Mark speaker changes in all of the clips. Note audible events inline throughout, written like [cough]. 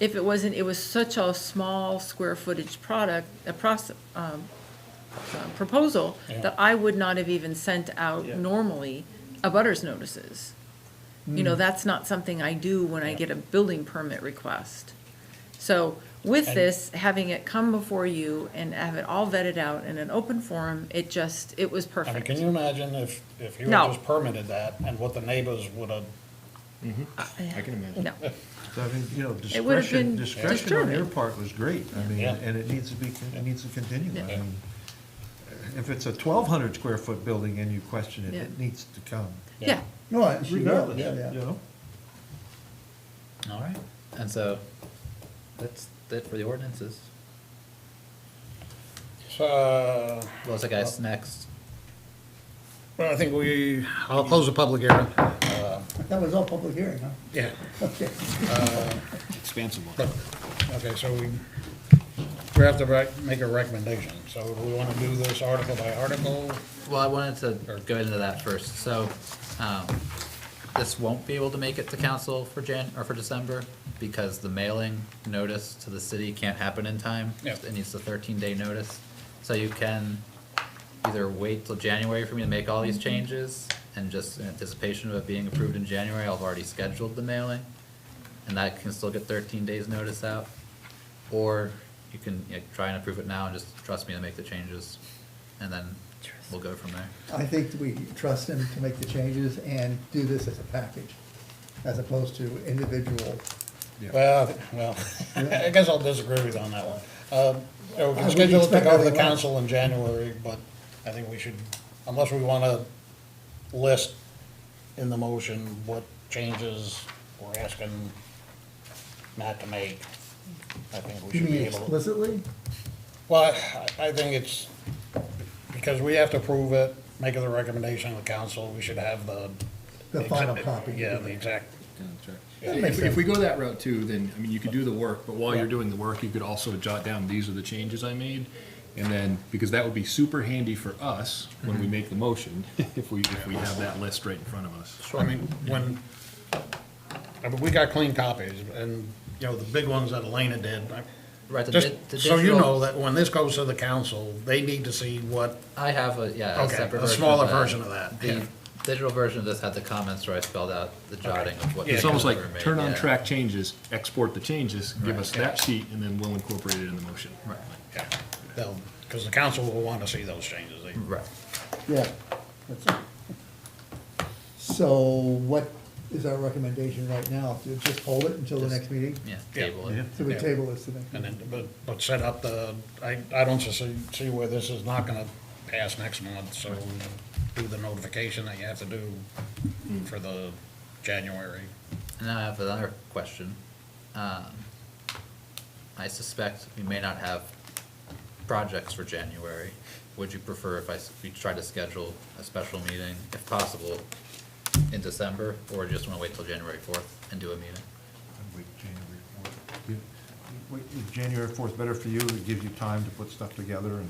Speaker 1: if it wasn't, it was such a small square footage product, a process, um, uh, proposal, that I would not have even sent out
Speaker 2: Yeah.
Speaker 1: normally a butters notices. You
Speaker 2: Mm.
Speaker 1: know, that's not something I do when I get a building permit request. So with
Speaker 2: And-
Speaker 1: this, having it come before you and have it all vetted out in an open forum, it just, it was
Speaker 2: I mean,
Speaker 1: perfect.
Speaker 2: can you imagine if, if you
Speaker 1: No.
Speaker 2: had just permitted that and what the neighbors would have,
Speaker 3: I can imagine.
Speaker 2: [laughs]
Speaker 1: No,
Speaker 4: So, I mean, you know,
Speaker 1: It would have been
Speaker 4: discretion, discretion on your
Speaker 1: disturbing.
Speaker 4: part was great, I mean,
Speaker 2: Yeah.
Speaker 4: and it needs to be, con- it needs to continue. I
Speaker 1: Yeah.
Speaker 4: mean, If it's a twelve hundred square foot building and you question it,
Speaker 1: Yeah.
Speaker 4: it needs to come,
Speaker 1: yeah,
Speaker 5: No, I- she will,
Speaker 4: regardless, you
Speaker 5: yeah, yeah.
Speaker 4: know?
Speaker 3: All right, and so that's it for the ordinances.
Speaker 2: so,
Speaker 3: What's the guy's next?
Speaker 2: well, I think we, I'll close the public hearing. Uh,
Speaker 5: That was all public hearing, huh?
Speaker 2: Yeah. Uh,
Speaker 5: Okay.
Speaker 6: Expansive one.
Speaker 2: Look, Okay, so we, we have to rec- make a recommendation. So do we want to do this article by article?
Speaker 3: Well, I wanted to go into that first, so, um, this won't be able to make it to council for Jan, or for December, because the mailing notice to the city can't happen in time.
Speaker 2: Yeah.
Speaker 3: It needs a thirteen day notice, so you can either wait till January for me to make all these changes, and just in anticipation of it being approved in January, I've already scheduled the mailing, and that can still get thirteen days notice out, or you can, you know, try and approve it now and just trust me to make the changes, and then we'll go from there.
Speaker 5: I think we trust him to make the changes and do this as a package, as opposed to individual.
Speaker 2: Well, well, I guess I'll disagree with you on that one. Uh, yeah, We
Speaker 5: I
Speaker 2: can
Speaker 5: would
Speaker 2: schedule it to
Speaker 5: expect
Speaker 2: go to the
Speaker 5: everyone.
Speaker 2: council in January, but I think we should, unless we want to list in the motion what changes we're asking Matt to make, I think we should be able to.
Speaker 5: explicitly?
Speaker 2: Well, I- I think it's, because we have to approve it, make it a recommendation to the council, we should have the.
Speaker 5: The final copy.
Speaker 2: Yeah, the exact,
Speaker 5: That makes
Speaker 6: If, if we go that route too, then, I mean, you could do the work, but while you're doing the work, you could also jot down, these are the changes I made. And then, because that would be super handy for us when we make the motion, if we, if we have that list right in front of us.
Speaker 2: I mean, when, I mean, we got clean copies, and, you know, the big ones that Elena did. I-
Speaker 3: Right, the
Speaker 2: Just
Speaker 3: di- the
Speaker 2: so you
Speaker 3: digital-
Speaker 2: know that when this goes to the council, they need to see what,
Speaker 3: I have a, yeah, a
Speaker 2: Okay,
Speaker 3: separate version
Speaker 2: a
Speaker 3: of that.
Speaker 2: smaller version of that, yeah.
Speaker 3: The digital version of this had the comments where I spelled out the jotting of what.
Speaker 2: Yeah,
Speaker 6: It's almost like
Speaker 3: were made,
Speaker 6: turn on
Speaker 3: yeah.
Speaker 6: track changes, export the changes, give us
Speaker 2: Right.
Speaker 6: that sheet, and then we'll incorporate it in the motion.
Speaker 3: Right,
Speaker 2: yeah, they'll, because the council will want to see those changes. They-
Speaker 3: right.
Speaker 5: Yeah. that's it. So what is our recommendation right now? To just hold it until the next meeting?
Speaker 3: Yeah,
Speaker 2: Yeah.
Speaker 3: table it.
Speaker 5: So we
Speaker 2: Yeah.
Speaker 5: table this to the next
Speaker 2: And
Speaker 5: meeting?
Speaker 2: then, but, but set up the, I, I don't see, see where this is not gonna pass next month, so do the notification that you have to do for the January.
Speaker 3: And now I have another question. Um, I suspect we may not have projects for January. Would you prefer if I, s- we try to schedule a special meeting, if possible, in December? Or just wanna wait till January fourth and do a meeting?
Speaker 4: I'd wait January 4th. You- wait, is January fourth better for you, it gives you time to put stuff together and.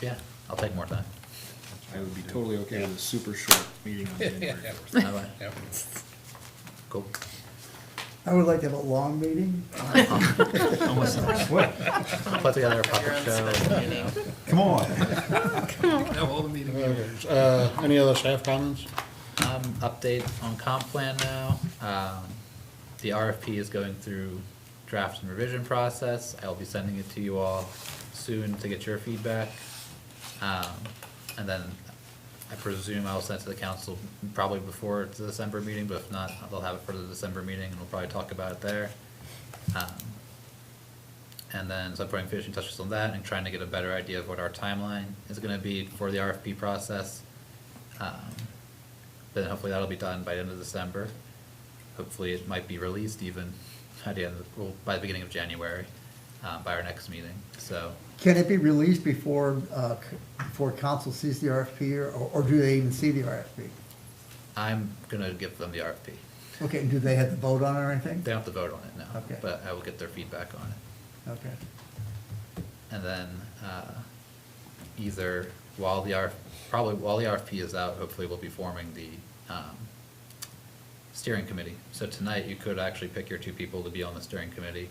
Speaker 3: Yeah, I'll take more time.
Speaker 6: I would be totally okay with a super short meeting on January
Speaker 2: Yeah.
Speaker 6: first.
Speaker 3: All right,
Speaker 2: Yep.
Speaker 3: Cool.
Speaker 5: I would like to have a long meeting.
Speaker 4: What?
Speaker 3: I'll put together a puppet show, you know.
Speaker 4: Come on.
Speaker 6: Have all the meetings.
Speaker 2: Okay, Uh, any other staff comments?
Speaker 3: Um, update on comp plan now. Um, the RFP is going through draft and revision process. I'll be sending it to you all soon to get your feedback. Um, and then I presume I'll send it to the council probably before the December meeting, but if not, they'll have it for the December meeting and we'll probably talk about it there. Um, And then, so I'm putting finishing touches on that and trying to get a better idea of what our timeline is gonna be for the RFP process. Um, then hopefully that'll be done by the end of December. Hopefully it might be released even at the end, of- well, by the beginning of January, uh, by our next meeting, so.
Speaker 5: Can it be released before, uh, c- before council sees the RFP or, or do they even see the RFP?
Speaker 3: I'm gonna give them the RFP.
Speaker 5: Okay, and do they have to vote on it or anything?
Speaker 3: They don't have to vote on it now,
Speaker 5: Okay.
Speaker 3: but I will get their feedback on it.
Speaker 5: Okay.
Speaker 3: And then, uh, either while the R, probably while the RFP is out, hopefully we'll be forming the, um, steering committee. So tonight you could actually pick your two people to be on the steering committee